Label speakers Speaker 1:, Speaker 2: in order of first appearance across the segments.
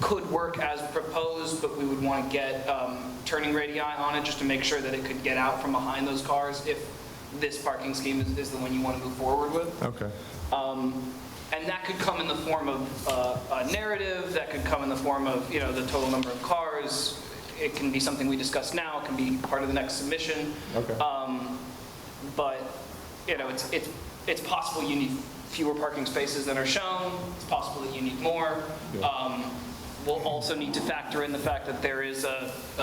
Speaker 1: could work as proposed, but we would want to get um, turning radii on it just to make sure that it could get out from behind those cars if this parking scheme is, is the one you want to move forward with. Um,
Speaker 2: Okay.
Speaker 1: And that could come in the form of uh, a narrative, that could come in the form of, you know, the total number of cars. It can be something we discuss now, it can be part of the next submission.
Speaker 2: Okay.
Speaker 1: Um, But, you know, it's, it's, it's possible you need fewer parking spaces than are shown, it's possible that you need more.
Speaker 2: Yeah.
Speaker 1: Um, We'll also need to factor in the fact that there is a, a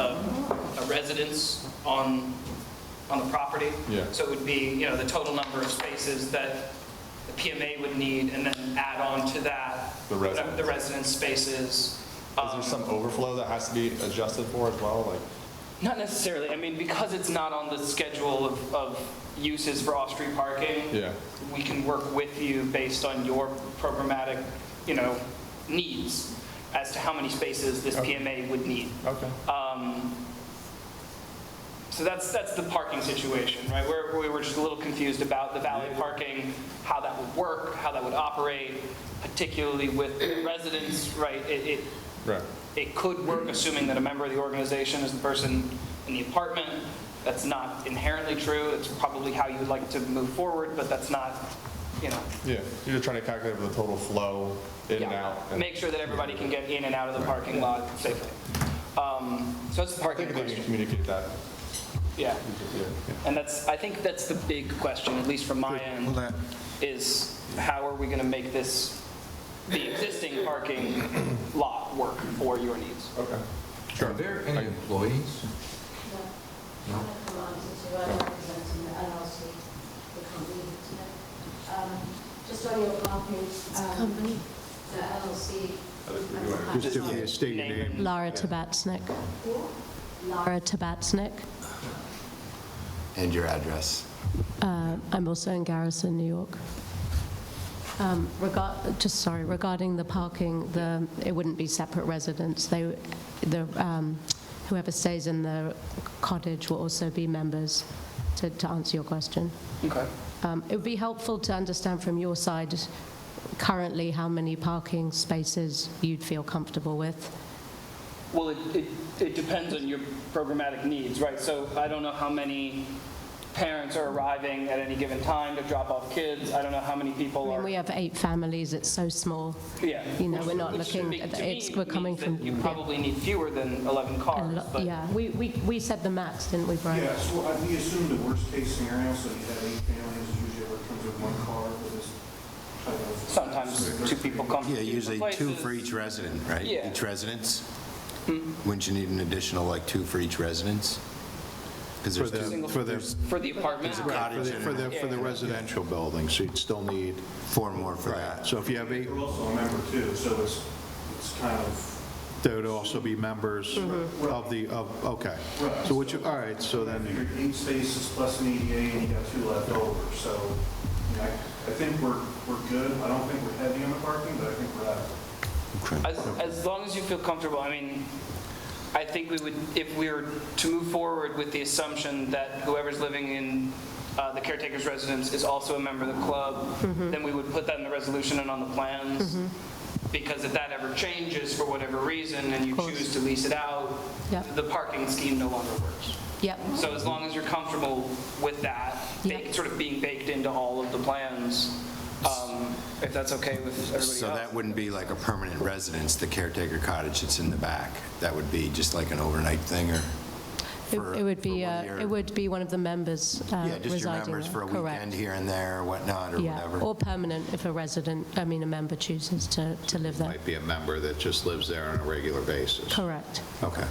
Speaker 1: a residence on, on the property.
Speaker 2: Yeah.
Speaker 1: So it would be, you know, the total number of spaces that the PMA would need, and then add on to that.
Speaker 2: The residence.
Speaker 1: The residence spaces.
Speaker 2: Is there some overflow that has to be adjusted for as well, like?
Speaker 1: Not necessarily, I mean, because it's not on the schedule of, of uses for off-street parking.
Speaker 2: Yeah.
Speaker 1: We can work with you based on your programmatic, you know, needs as to how many spaces this
Speaker 2: Okay.
Speaker 1: PMA would need.
Speaker 2: Okay.
Speaker 1: So that's, that's the parking situation, right? We're, we were just a little confused about the valet parking, how that would work, how that would operate, particularly with residents, right? It, it,
Speaker 2: Right.
Speaker 1: it could work, assuming that a member of the organization is the person in the apartment. That's not inherently true. It's probably how you would like to move forward, but that's not, you know.
Speaker 2: Yeah, you're just trying to calculate the total flow in and
Speaker 1: yeah.
Speaker 2: out. and-
Speaker 1: Make sure that everybody can get in and out of the parking lot safely. Um, So that's the
Speaker 2: I
Speaker 1: parking
Speaker 2: think they can
Speaker 1: question.
Speaker 2: communicate that.
Speaker 1: Yeah.
Speaker 2: Yeah.
Speaker 1: And that's, I think that's the big question, at least from my end,
Speaker 3: Well, that-
Speaker 1: is how are we going to make this, the existing parking lot work for your needs?
Speaker 2: Okay.
Speaker 3: Are there any employees?
Speaker 4: No. I'm representing the LLC, the company today. Um, Just on your copy. um, The LLC.
Speaker 5: Just if you state your name.
Speaker 6: Laura Tabatsnik. Laura Tabatsnik.
Speaker 7: And your address.
Speaker 6: Uh, I'm also in Garrison, New York. Um, Regard, just sorry, regarding the parking, the, it wouldn't be separate residents. They, the, um, whoever stays in the cottage will also be members, to, to answer your question.
Speaker 1: Okay.
Speaker 6: Um, It would be helpful to understand from your side currently how many parking spaces you'd feel comfortable with.
Speaker 1: Well, it, it, it depends on your programmatic needs, right? So I don't know how many parents are arriving at any given time to drop off kids. I don't know how many people
Speaker 6: I mean,
Speaker 1: are.
Speaker 6: we have eight families, it's so small.
Speaker 1: Yeah.
Speaker 6: you know, we're not
Speaker 1: Which should
Speaker 6: looking
Speaker 1: be-
Speaker 6: at
Speaker 1: to
Speaker 6: the-
Speaker 1: me
Speaker 6: it's- we're
Speaker 1: means
Speaker 6: coming
Speaker 1: that
Speaker 6: from-
Speaker 1: You
Speaker 6: yeah.
Speaker 1: probably need fewer than 11
Speaker 6: A
Speaker 1: cars,
Speaker 6: lot-
Speaker 1: but.
Speaker 6: Yeah, we, we, we said the max, didn't we, Brian?
Speaker 8: Yeah, so I- we assume the worst-case scenario, so you have eight families, usually it comes with one car for this type of...
Speaker 1: Sometimes two people come. from
Speaker 7: Yeah, usually
Speaker 1: different
Speaker 7: two
Speaker 1: places.
Speaker 7: for each resident, right?
Speaker 1: Yeah. Mm-hmm.
Speaker 7: Each residence? Wouldn't you need an additional, like, two for each residence? Because there's
Speaker 5: For the-
Speaker 7: two
Speaker 1: Single-
Speaker 5: for the-
Speaker 1: For the apartment.
Speaker 5: For the,
Speaker 7: cottage
Speaker 5: for the,
Speaker 7: and
Speaker 5: for the residential building, so you'd still need,
Speaker 7: four more for that.
Speaker 5: so if you have eight,
Speaker 8: You're also a member too, so it's, it's kind of,
Speaker 5: there would also be members
Speaker 1: Mm-hmm.
Speaker 5: of the, of, okay.
Speaker 8: Right.
Speaker 5: So what you, all right, so
Speaker 8: I
Speaker 5: then,
Speaker 8: figured eight spaces plus an EDA, and you got two left over, so you know, I I think we're, we're good. I don't think we're heavy on the parking, but I think we're at it.
Speaker 1: As, as long as you feel comfortable, I mean, I think we would, if we were to move forward with the assumption that whoever's living in uh, the caretaker's residence is also a member of the club,
Speaker 6: Mm-hmm.
Speaker 1: then we would put that in the resolution and on the plans. Because if that ever changes for whatever reason and you
Speaker 6: Of course.
Speaker 1: choose to lease it out,
Speaker 6: Yeah.
Speaker 1: the parking scheme no longer works.
Speaker 6: Yep,
Speaker 1: So as long as you're comfortable with that,
Speaker 6: Yeah.
Speaker 1: ba- sort of being baked into all of the plans, um, if that's okay with everybody else.
Speaker 7: So that wouldn't be like a permanent residence, the caretaker cottage that's in the back. That would be just like an overnight thing or
Speaker 1: Uh,
Speaker 6: it
Speaker 7: for.
Speaker 6: it would
Speaker 7: for
Speaker 6: be,
Speaker 7: one
Speaker 6: uh,
Speaker 7: year.
Speaker 6: it would be one of the members uh, residing
Speaker 7: Yeah,
Speaker 6: there.
Speaker 7: just your members for a
Speaker 6: Correct.
Speaker 7: weekend here and there or whatnot or
Speaker 6: Yeah,
Speaker 7: whatever.
Speaker 6: or permanent if a resident, I mean, a member chooses to, to live there.
Speaker 5: might be a member that just lives there on a regular basis.
Speaker 6: Correct.
Speaker 7: Okay.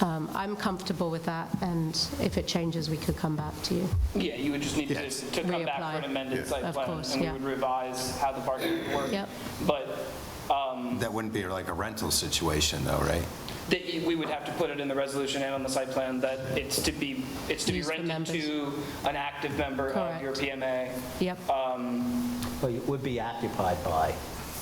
Speaker 6: Um, I'm comfortable with that, and if it changes, we could come back to you.
Speaker 1: Yeah, you would just need to
Speaker 7: Yes.
Speaker 1: to come back for an
Speaker 6: Reapply.
Speaker 1: amended
Speaker 6: Yeah.
Speaker 1: site
Speaker 6: Of
Speaker 1: plan,
Speaker 6: course,
Speaker 1: and we
Speaker 6: yeah.
Speaker 1: would revise how the parking would work.
Speaker 6: Yep.
Speaker 1: But
Speaker 7: That wouldn't be like a rental situation though, right?
Speaker 1: that you- we would have to put it in the resolution and on the site plan that it's to be, it's to be
Speaker 6: Used for
Speaker 1: rented
Speaker 6: members.
Speaker 1: to an active member of your
Speaker 6: Correct.
Speaker 1: PMA.
Speaker 6: Yep,
Speaker 9: Well, it would be occupied by,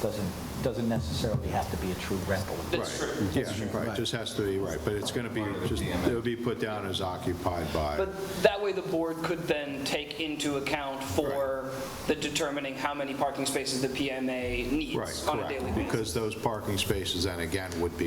Speaker 9: doesn't, doesn't necessarily have to be a true rental.
Speaker 1: That's true.
Speaker 5: Yeah, right, just has to be, right, but it's going to be, just it would be put down as occupied by.
Speaker 1: But that way, the board could then take into account account for the determining how many parking spaces the PMA
Speaker 5: Right,
Speaker 1: needs on a daily
Speaker 5: correct.
Speaker 1: basis.
Speaker 5: Because those parking spaces then again would be